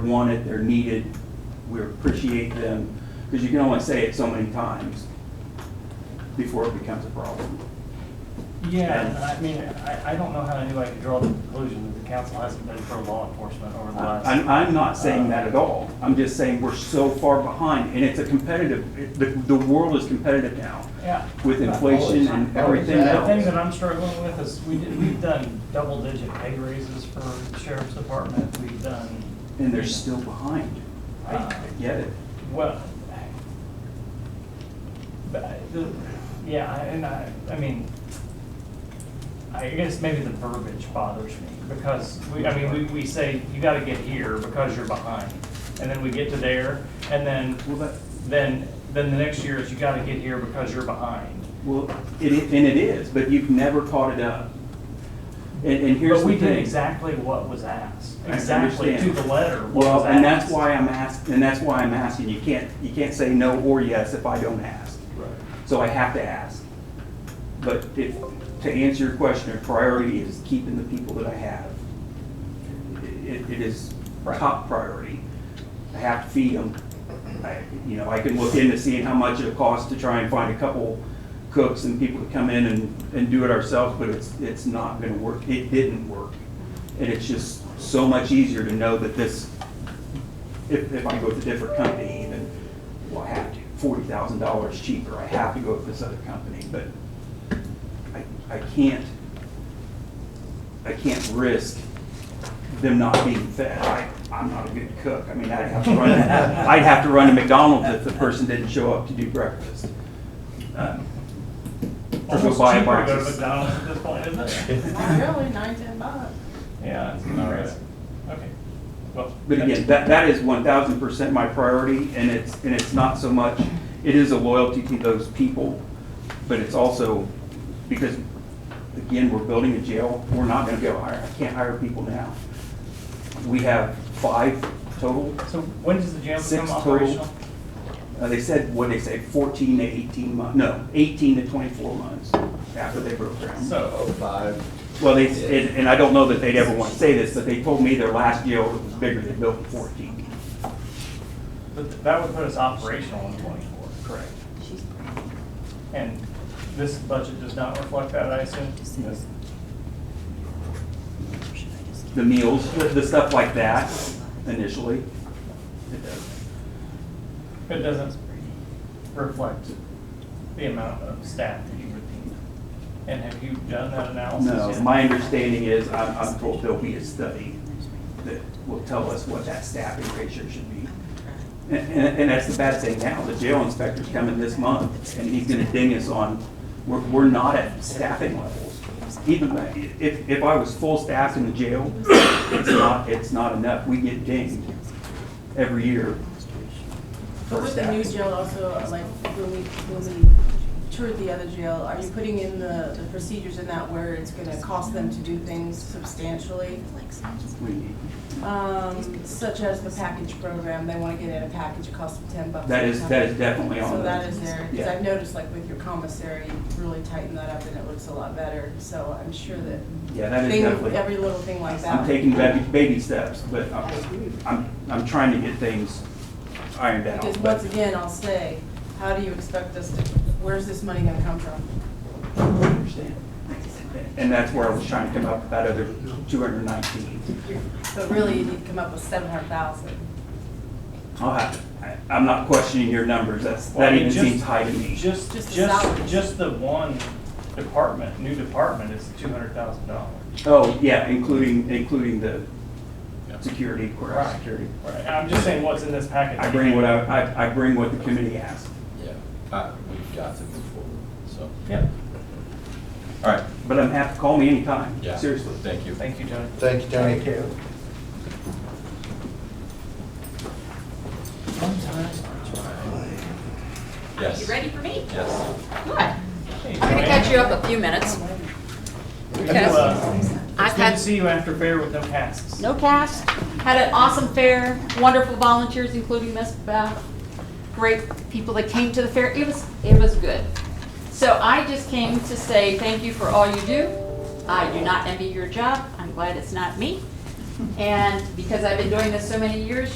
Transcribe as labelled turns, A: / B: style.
A: wanted, they're needed, we appreciate them, because you can only say it so many times before it becomes a problem.
B: Yeah, and I mean, I, I don't know how anybody could draw the conclusion that the council hasn't been pro law enforcement over the last.
A: I'm, I'm not saying that at all, I'm just saying we're so far behind, and it's a competitive, it- the, the world is competitive now,
B: Yeah.
A: with inflation and everything
B: The thing
A: else.
B: that I'm struggling with is we did, we've done double digit pay raises for the sheriff's department. We've done.
A: And they're still behind, I I get it.
B: Well. But, I- the- yeah, I- and I, I mean, I guess maybe the verbiage bothers me because we, I mean, we, we say you gotta get here because you're behind. And then we get to there and then,
A: Well, that,
B: then, then the next year is you gotta get here because you're behind.
A: well, it, i- and it is, but you've never caught it up. And, and here's the
B: But we
A: thing.
B: did exactly what was asked,
A: I
B: exactly to
A: understand.
B: the letter what was
A: Well,
B: asked.
A: and that's why I'm asked, and that's why I'm asking, you can't, you can't say no or yes if I don't ask.
C: Right.
A: So I have to ask. But if, to answer your question, a priority is keeping the people that I have. It, it is
B: Right.
A: top priority. I have to feed them. I, you know, I can look into seeing how much it costs to try and find a couple cooks and people to come in and, and do it ourselves, but it's, it's not gonna work. It didn't work. And it's just so much easier to know that this, if, if I go with a different company, even, well, I have to, forty thousand dollars cheaper, I have to go with this other company, but I, I can't, I can't risk them not being fed. I, I'm not a good cook, I mean, I'd have to run, I'd have to run a McDonald's if the person didn't show up to do breakfast. Um, Or go
B: Almost
A: buy a
B: cheaper to
A: box.
B: go to
A: of-
B: McDonald's at this point, isn't it?
D: Not really, nine, ten bucks.
B: Yeah, it's not right. Okay. Well,
A: But again, that, that is one thousand percent my priority, and it's, and it's not so much, it is a loyalty to those people, but it's also, because, again, we're building a jail, we're not gonna go hire, I can't hire people now. We have five total,
B: So when does the jail
A: Six
B: become
A: total.
B: operational?
A: uh, they said, what they say, fourteen to eighteen months. no, eighteen to twenty-four months after they broke ground.
B: So,
C: Oh, five.
A: Well, they, and, and I don't know that they'd ever want to say this, but they told me their last jail was bigger than building fourteen.
B: but that would put us operational in twenty-four, correct? And this budget does not reflect that, I assume? Yes.
A: the meals, the, the stuff like that initially. It does.
B: It doesn't reflect the amount of staff that you retain. And have you done that analysis
A: No,
B: yet?
A: my understanding is, I'm, I'm told there'll be a study that will tell us what that staffing ratio should be. And, and, and that's the bad thing now, the jail inspector's coming this month, and he's gonna ding us on, we're, we're not at staffing levels. Even though- if, if I was full staffed in the jail, it's not, it's not enough, we get dinged every year. for
D: But with the new
A: staffing.
D: jail also, uh, like, when we, when we toured the other jail, are you putting in the, the procedures in that where it's gonna cost them to do things substantially?
A: We need-
D: Um, such as the package program, they wanna get in a package, it costs them ten bucks.
A: That
D: at a
A: is,
D: time.
A: that is definitely on the.
D: So that is there, because
A: Yeah.
D: I've noticed like with your commissary, you really tighten that up and it looks a lot better, so I'm sure that
A: Yeah, that is
D: thing-
A: definitely,
D: every little thing like that.
A: I'm taking baby, baby steps, but I'm, I'm, I'm trying to get things ironed out.
D: Because
A: but-
D: once again, I'll say, how do you expect us to, where's this money gonna come from?
A: I understand. And that's where I was trying to come up with that other two hundred nineteen.
D: But really, you need to come up with seven hundred thousand.
A: I'll have, to- I, I'm not questioning your numbers, that's,
B: Well, I
A: that
B: mean,
A: even
B: just-
A: seems high to me.
B: Just,
D: Just the
B: just,
D: salaries.
B: just the one department, new department is two hundred thousand dollars.
A: Oh, yeah, including, including the security, courthouse
B: Right.
A: security.
B: Right, and I'm just saying what's in this package.
A: I bring what I, I, I bring what the committee asked.
C: Yeah, uh, we've got to move forward, so.
B: Yeah,
C: All right,
A: But I'm happy, call me anytime,
C: yeah.
A: seriously.
C: Thank you.
B: thank you, Tony.
E: Thank you, Tony.
C: Yes.
F: You ready for me?
C: Yes.
F: Good. I'm gonna catch you up a few minutes. because
B: uh, It's
F: I've
B: good to
F: had-
B: see you after fair with no casks.
F: No cast. Had an awesome fair, wonderful volunteers, including Miss Beth. Great people that came to the fair. It was, it was good. So I just came to say thank you for all you do. I do not envy your job. I'm glad it's not me. And because I've been doing this so many years,